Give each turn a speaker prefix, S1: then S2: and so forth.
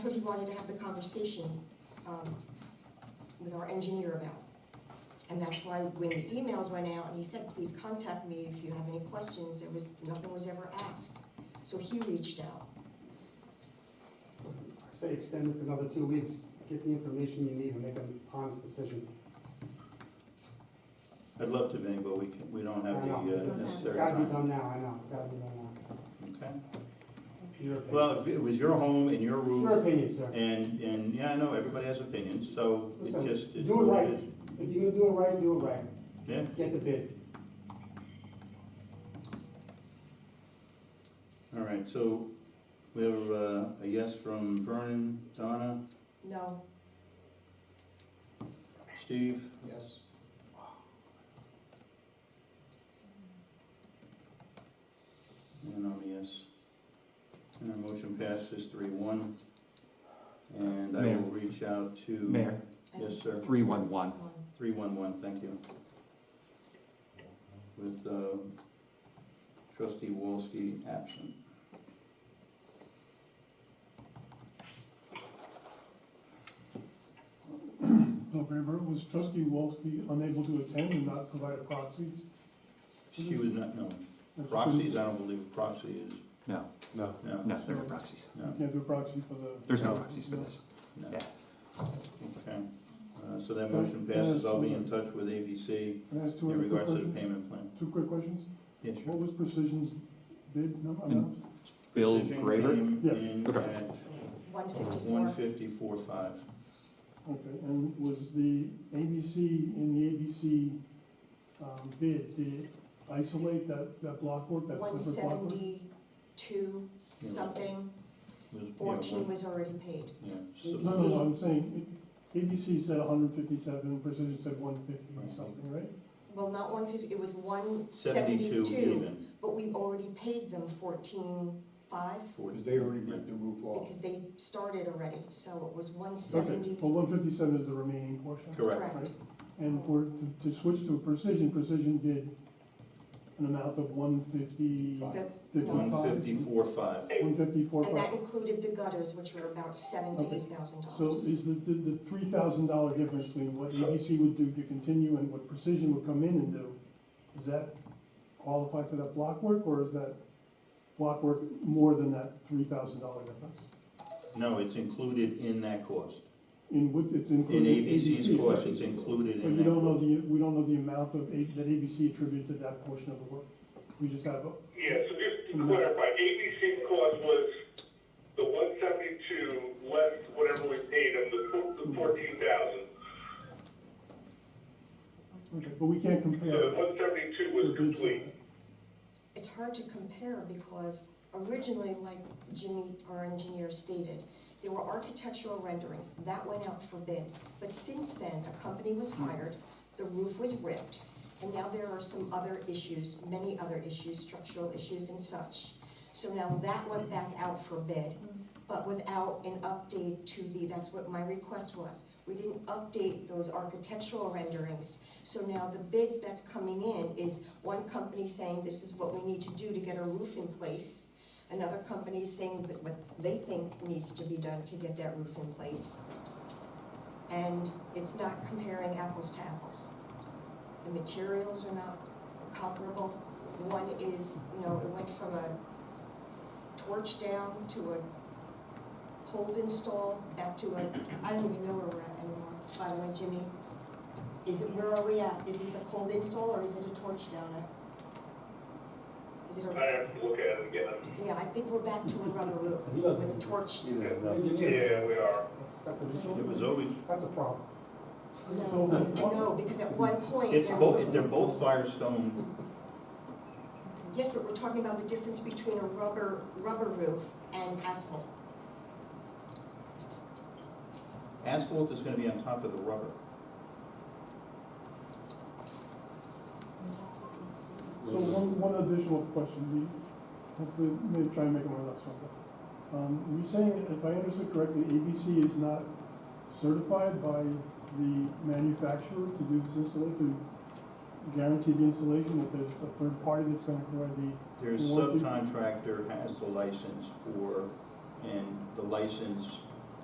S1: what he wanted to have the conversation um, with our engineer about. And that's why when the emails went out and he said, please contact me if you have any questions, there was, nothing was ever asked. So he reached out.
S2: I Say extend it for another two weeks, get the information you need and make an honest decision.
S3: I'd love to, Vinny, but we can, we don't
S2: I
S3: have the
S2: know.
S3: uh,
S2: It's
S3: necessary
S2: gotta be
S3: time.
S2: done now, I know, it's gotta be done now.
S3: Okay.
S2: Your opinion.
S3: Well, if it was your home and your
S2: Your
S3: roof,
S2: opinion, sir.
S3: and, and, yeah, I know, everybody has opinions, so it
S2: Listen,
S3: just, it's
S2: do it
S3: what
S2: right.
S3: it is.
S2: If you're gonna do it right, do it right.
S3: Yeah,
S2: Get the bid.
S3: all right, so we have uh, a yes from Vernon, Donna,
S1: No,
S3: Steve,
S4: Yes.
S3: and I'm a yes. And our motion passes three one. And I
S5: Mayor.
S3: will reach out to.
S5: Mayor,
S3: Yes, sir.
S5: 311.
S1: one.
S3: Three-one-one, thank you. With um, trustee Wolski absent.
S6: No, Rayburn, was trustee Wolski unable to attend and not provide a proxy?
S3: She was not, no,
S6: That's-
S3: proxies,
S5: uh,
S3: I don't believe proxy is,
S5: No,
S4: No.
S3: no,
S5: no, there are no proxies.
S6: You
S3: no,
S6: can't do a proxy for the.
S5: There's no proxies for this.
S3: no.
S5: Yeah.
S3: Okay, Uh, so that motion passes, I'll be in touch with ABC
S6: Can I ask two
S3: in
S6: other quick
S3: regards to the
S6: questions?
S3: payment plan.
S6: Two quick questions.
S3: Yes, sure.
S6: What was Precision's bid number? amount?
S5: Bill
S3: Precision
S5: Graber?
S3: came
S6: Yes.
S3: in
S5: Okay.
S3: at
S1: One
S3: one
S1: fifty-four.
S3: fifty-four five,
S6: Okay, and was the ABC, in the ABC um, bid, did it isolate that, that block work, that
S1: One
S6: separate block work?
S1: seventy-two
S3: Yeah.
S1: something,
S3: was, yeah,
S1: fourteen
S3: one-
S1: was already paid.
S3: yeah,
S6: No,
S3: so-
S6: no, no, I'm saying, it- ABC said hundred fifty-seven, Precision said one fifty or something, right?
S1: Well, not one fifty, it was one
S3: seventy-two
S1: seventy-two,
S3: even.
S1: but we already paid them fourteen-five
S4: Because they already ripped the roof off.
S1: because they started already, so it was one
S6: Okay,
S1: seventy.
S6: well, one fifty-seven is the remaining portion.
S3: Correct,
S1: Correct.
S6: And for, to, to switch to precision, precision did an amount of one fifty,
S4: Five.
S1: The-
S6: fifty-five.
S3: one fifty-four five.
S6: One fifty-four,
S1: And that included the gutters, which were about seventy-eight thousand
S6: so
S1: dollars.
S6: is the, the, the three thousand dollar difference between what ABC would do to continue and what precision would come in and do, does that qualify for that block work, or is that block work more than that three thousand dollar difference?
S3: No, it's included in that cost.
S6: In what, it's
S3: In
S6: included.
S3: ABC's
S6: ABC,
S3: cost,
S6: right?
S3: it's included
S6: But
S3: in
S6: you don't know
S3: that.
S6: the, we don't know the amount of, A- that ABC attributed to that portion of the work, we just have a
S7: Yeah, so just to clarify, ABC cost was the one seventy-two less whatever we paid them, the four- the fourteen thousand.
S6: Okay, but we can't
S7: So the
S6: compare.
S7: one seventy-two was complete.
S1: It's hard to compare because originally, like Jimmy, our engineer stated, there were architectural renderings, that went out for bid. But since then, a company was
S6: Hmm.
S1: hired, the roof was ripped, and now there are some other issues, many other issues, structural issues and such. So now that went back out for bid, but without an update to the, that's what my request was. We didn't update those architectural renderings. So now the bids that's coming in is one company saying this is what we need to do to get a roof in place. Another company is saying that what they think needs to be done to get that roof in place. And it's not comparing apples to apples. The materials are not comparable. One is, you know, it went from a torch down to a hold install back to a, I don't even know where we're at anymore. By the way, Jimmy, is it, where are we at? Is this a cold install or is it a torch downer? Is it a?
S7: I have to look at it again.
S1: Yeah, I think we're back to a rubber roof
S2: He doesn't-
S1: with a torch.
S7: Yeah, we are.
S2: That's, that's an
S3: It was
S2: issue,
S3: always,
S2: that's a problem.
S1: No, no, because at one point.
S3: it's
S1: there was-
S3: both, they're both Firestone,
S1: Yes, but we're talking about the difference between a rubber, rubber roof and asphalt.
S3: asphalt is gonna be on top of the rubber.
S6: So one, one additional question, we hopefully may try and make one last one. Um, you're saying, if I understood correctly, ABC is not certified by the manufacturer to do this installation, to guarantee the installation, that there's a third party that's gonna provide the,
S3: Their
S6: What do-
S3: subcontractor has the license for, and the license